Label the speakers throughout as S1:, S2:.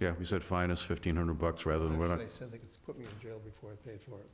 S1: Yeah, we said fine us fifteen hundred bucks rather than, we're not,
S2: They said they could put me in jail before I paid for it.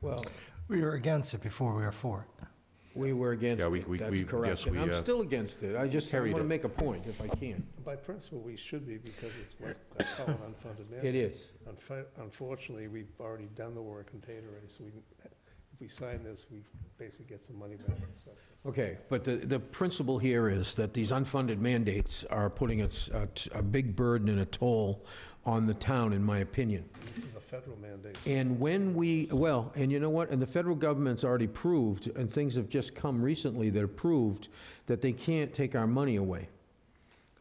S3: Well,
S4: We were against it before we were for it.
S3: we were against
S1: Yeah, we- we-
S3: it, that's
S1: we- yes,
S3: correct. And
S1: we,
S3: I'm
S1: uh,
S3: still against it, I just
S1: carried
S3: want to
S1: it.
S3: make a point if I can.
S2: By principle, we should be because it's what I call an unfunded
S3: It
S2: mandate.
S3: is.
S2: Unfa- Unfortunately, we've already done the work and paid already, so we, if we sign this, we basically get some money back. so.
S3: Okay, but the, the principle here is that these unfunded mandates are putting a, s- a t- a big burden and a toll on the town, in my opinion.
S2: This is a federal mandate.
S3: And when we, well, and you know what, and the federal government's already proved, and things have just come recently that have proved, that they can't take our money away.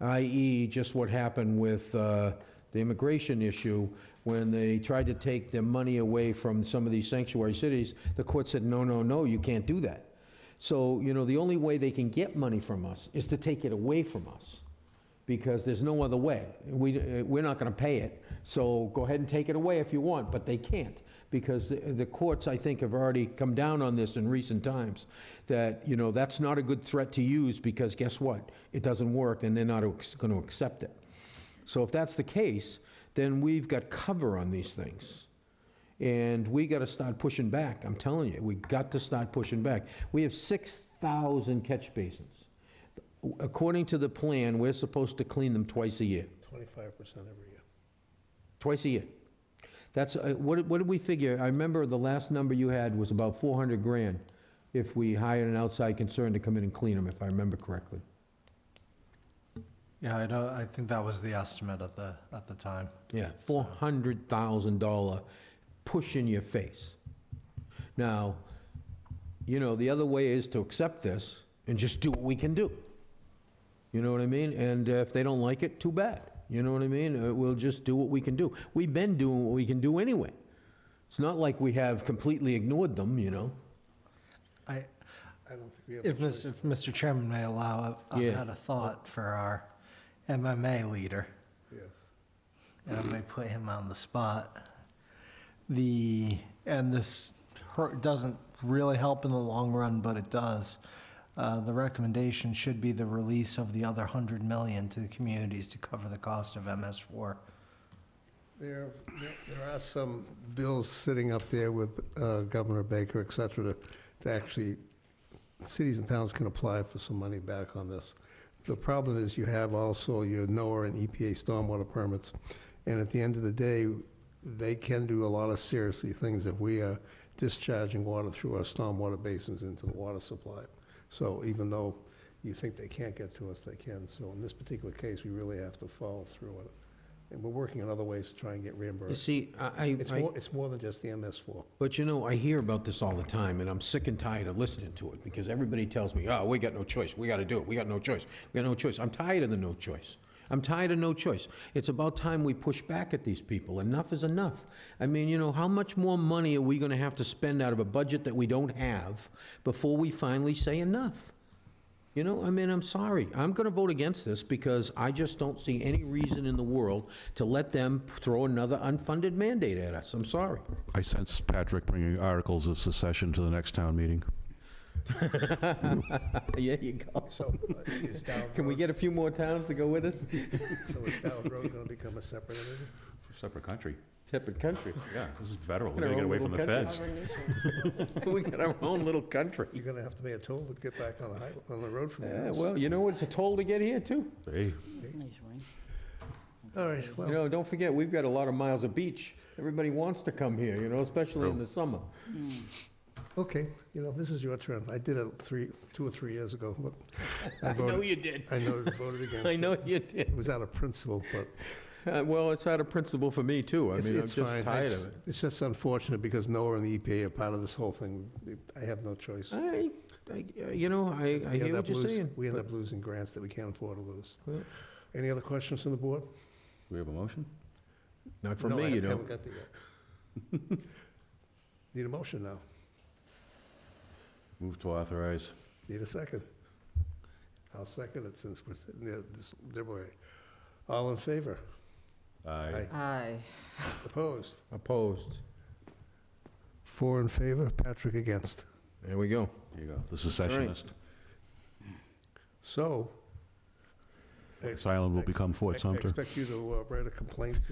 S3: I.e., just what happened with uh, the immigration issue, when they tried to take their money away from some of these sanctuary cities, the court said, no, no, no, you can't do that. So, you know, the only way they can get money from us is to take it away from us, because there's no other way. We, uh, we're not gonna pay it, so go ahead and take it away if you want, but they can't, because the- the courts, I think, have already come down on this in recent times, that, you know, that's not a good threat to use, because guess what? It doesn't work, and they're not ex- gonna accept it. So if that's the case, then we've got cover on these things. And we got to start pushing back, I'm telling you, we got to start pushing back. We have 6,000 catch basins. According to the plan, we're supposed to clean them twice a year,
S2: Twenty-five percent every year.
S3: twice a year. That's, uh, what did- what did we figure? I remember the last number you had was about 400 grand if we hired an outside concern to come in and clean them, if I remember correctly.
S4: Yeah, I don't, I think that was the estimate at the, at the time.
S3: Yeah, four hundred thousand dollar push in your face. Now, you know, the other way is to accept this and just do what we can do. You know what I mean? And uh, if they don't like it, too bad. You know what I mean? Uh, We'll just do what we can do. We've been doing what we can do anyway. It's not like we have completely ignored them, you know?
S4: I,
S2: I don't think we have. a
S4: if
S2: choice.
S4: Mr., if Mr. Chairman may allow, I've- I've
S3: Yeah.
S4: had a thought for our MMA leader,
S2: Yes.
S4: and I may put him on the spot. The, and this hurt, doesn't really help in the long run, but it does. Uh, the recommendation should be the release of the other hundred million to the communities to cover the cost of MS four.
S2: There, there- there are some bills sitting up there with uh, Governor Baker, et cetera, to, to actually, cities and towns can apply for some money back on this. The problem is you have also your NOAA and EPA stormwater permits, and at the end of the day, they can do a lot of seriously things if we are discharging water through our stormwater basins into the water supply. So even though you think they can't get to us, they can. So in this particular case, we really have to follow through on it. And we're working on other ways to try and get
S3: You
S2: reimbursed.
S3: see, I,
S2: It's more, it's more than just the MS4.
S3: But you know, I hear about this all the time, and I'm sick and tired of listening to it, because everybody tells me, oh, we got no choice, we gotta do it, we got no choice, we got no choice. I'm tired of the no choice. I'm tired of no choice. It's about time we push back at these people. Enough is enough. I mean, you know, how much more money are we gonna have to spend out of a budget that we don't have before we finally say enough? You know, I mean, I'm sorry. I'm going to vote against this because I just don't see any reason in the world to let them throw another unfunded mandate at us. I'm sorry.
S1: I sense Patrick bringing articles of secession to the next town meeting.
S3: Yeah, you go.
S2: So uh, is Dowd
S3: Can we
S2: Road,
S3: get a few more towns to go with us?
S2: so is Dowd Road going to become a separate entity?
S1: Separate country,
S3: Separate country.
S1: yeah, this is federal,
S3: Our
S1: we're gonna get
S3: own
S1: away from the
S3: little
S1: feds.
S3: country. We got our own little country.
S2: You're going to have to pay a toll to get back on the, high- on the road from your
S3: Yeah,
S2: house.
S3: well, you know, what? it's a toll to get here, too.
S1: Hey,
S2: All right,
S3: You
S2: well,
S3: know, don't forget, we've got a lot of miles of beach. Everybody wants to come here, you know, especially in
S1: True.
S3: the summer.
S2: okay, you know, this is your turn. I did it three, two or three years ago, but I voted,
S3: you did.
S2: I know, voted against it.
S3: I know you did.
S2: It was out of principle, but
S3: Uh, Well, it's out of principle for me, too. I
S2: it's,
S3: mean, I'm
S2: it's
S3: just
S2: fine. I
S3: tired
S2: just-
S3: of it.
S2: It's just unfortunate because NOAA and the EPA are part of this whole thing. I have no choice.
S3: I, I- you know, I I
S2: We
S3: hear
S2: end
S3: what
S2: up
S3: you're
S2: losing-
S3: saying.
S2: We end
S3: but-
S2: up losing grants that we can't afford to lose.
S3: Yeah.
S2: Any other questions from the board?
S1: we have a motion?
S3: Not for
S2: No, I
S3: me, you know.
S2: haven't got there yet. Need a motion now.
S1: Move to authorize.
S2: Need a second. I'll second it since we're sitting there this deliberate. All in favor?
S1: Aye.
S5: Aye.
S2: Opposed?
S3: Opposed.
S2: Four in favor, Patrick against.
S3: There we go.
S1: There you go, the secessionist.
S2: So,
S1: This island will become Fort
S2: I
S1: Sumter.
S2: expect you to uh, write a complaint to